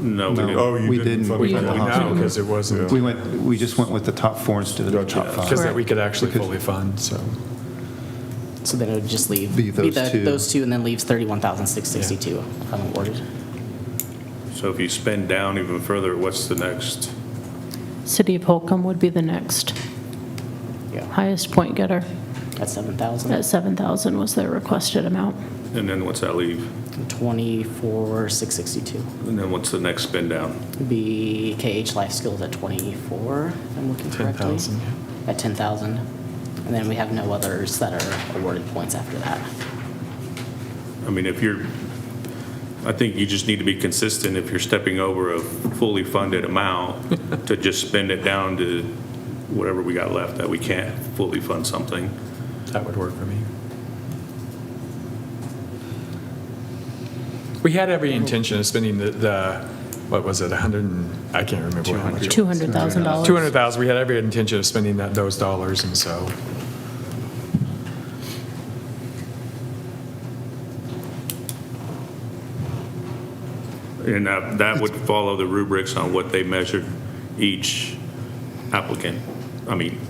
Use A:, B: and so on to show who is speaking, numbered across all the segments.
A: No, we didn't.
B: No.
C: Oh, you
B: We
C: didn't.
B: didn't.
C: fund
B: We
C: the
B: went
C: top
B: with
C: half.
B: half.
D: No, because it wasn't,
C: Yeah.
B: We went, we just went with the top four instead of the
C: Gotcha.
B: top
D: because
B: five.
D: that we could actually
B: Because-
D: fully fund, so.
E: So then it would just leave.
B: Leave those
E: the-
B: two.
E: Those two, and then leaves 31,662 unawarded.
A: So if you spend down even further, what's the next?
F: City of Holcomb would be the next
E: Yeah,
F: highest point getter.
E: that's
F: At
E: 7,000.
F: 7,000 was their requested amount.
A: And then what's that leave?
E: 24,662.
A: And then what's the next spend down?
E: Would be KH Life Skills at 24, if I'm looking correctly.
D: 10,000,
E: At 10,000. And then we have no others that are awarded points after that.
A: I mean, if you're, I think you just need to be consistent if you're stepping over a fully funded amount to just spend it down to whatever we got left that we can't fully fund something.
D: That would work for me. We had every intention of spending the- the, what was it, 100, and- I can't remember how much.
F: $200,000.
D: 200,000, we had every intention of spending that, those dollars, and so,
A: And that, that would follow the rubrics on what they measured each applicant. I mean,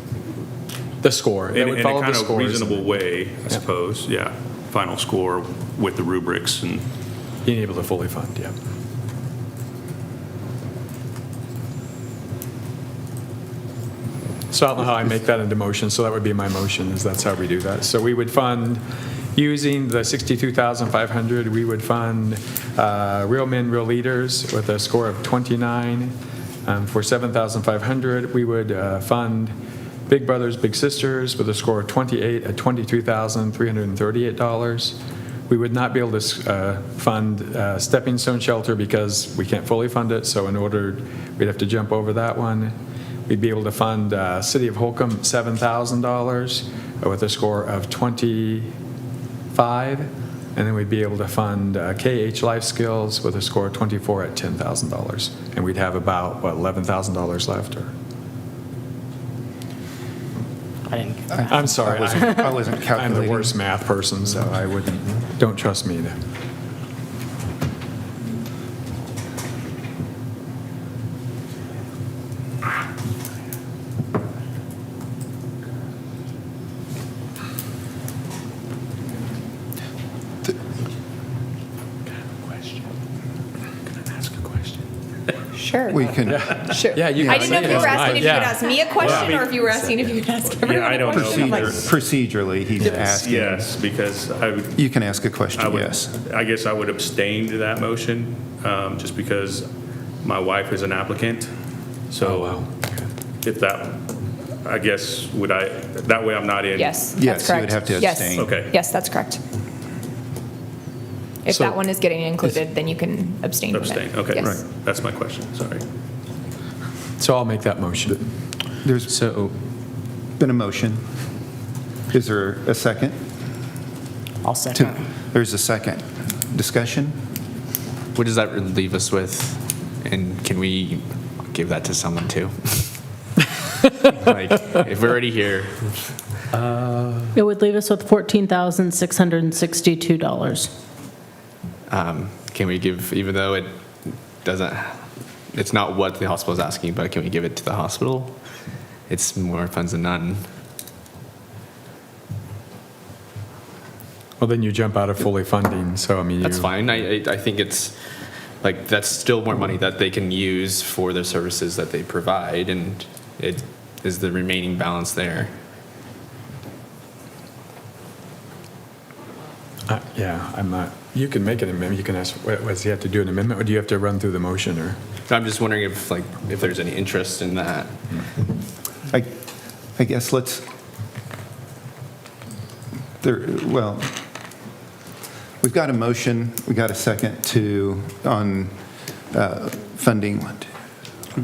D: the score, it
A: in in
D: would
A: a
D: follow the
A: kind of
D: scores.
A: reasonable way, I suppose, yeah. Final score with the rubrics and.
D: Being able to fully fund, yeah. So I don't know how I make that into motion, so that would be my motion, is that's how we do that. So we would fund, using the 62,500, we would fund uh, Real Men, Real Leaders with a score of 29 um, for 7,500. We would uh, fund Big Brothers, Big Sisters with a score of 28 at $22,338. We would not be able to uh, fund uh, Stepping Stone Shelter because we can't fully fund it, so in order, we'd have to jump over that one. We'd be able to fund uh, City of Holcomb $7,000 with a score of 25, and then we'd be able to fund uh, KH Life Skills with a score of 24 at $10,000. And we'd have about, what, $11,000 left? or-
E: I didn't,
D: I'm sorry,
B: I wasn't- I
D: I-
B: wasn't
D: I'm the
B: calculating.
D: worst math person, so I wouldn't, don't trust me to.
G: Sure.
B: We can,
D: Yeah, you
G: I
D: can
G: didn't know
D: say
G: if
D: it.
G: you were asking if you
D: Yeah.
G: would ask me a question or if you were asking if you would ask everyone.
A: I
G: a
A: don't know
G: question. I'm like,
B: procedure- procedurally, he's asking.
A: Yes, because I would,
B: You can ask a
A: I
B: question,
A: would-
B: yes.
A: I guess I would abstain to that motion, um, just because my wife is an applicant.
D: Oh,
A: So
D: wow.
A: if that, I guess, would I, that way I'm not in.
G: Yes, that's
B: Yes, you would
G: correct.
B: have to
G: Yes.
B: abstain.
A: Okay.
G: Yes, that's correct. If
D: So-
G: that one is getting included, then you can abstain from it.
A: Abstain, okay,
G: Yes.
A: right. That's my question, sorry.
D: So I'll make that motion.
B: There's
H: So,
B: been a motion. Is there a second?
E: I'll
B: To-
E: second.
B: There's a second. Discussion?
H: what does that really leave us with? And can we give that to someone too? like, if we're already here,
F: It would leave us with $14,662.
H: um, can we give, even though it doesn't, it's not what the hospital is asking, but can we give it to the hospital? It's more funds than none.
D: Well, then you jump out of fully funding, so I mean.
H: That's
D: you-
H: fine. I, I, I think it's like that's still more money that they can use for the services that they provide, and it is the remaining balance there.
D: Uh, Yeah, I'm not, you can make an amendment, you can ask, what, does he have to do an amendment, or do you have to run through the motion, or?
H: So I'm just wondering if like if there's any interest in that.
B: I, I guess let's, there, well, we've got a motion, we got a second to, on uh, funding, one, two,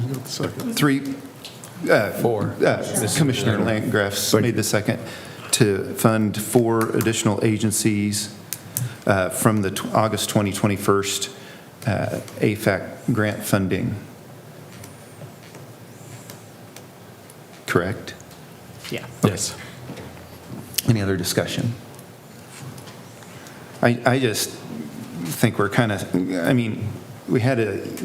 B: three,
D: Four.
B: uh, Commissioner Landgraf made the second to fund four additional agencies uh, from the tw- August 2021 uh, AFAC grant funding. Correct?
E: yeah.
D: Yes.
B: Any other discussion? I, I just think we're kind of, I mean, we had a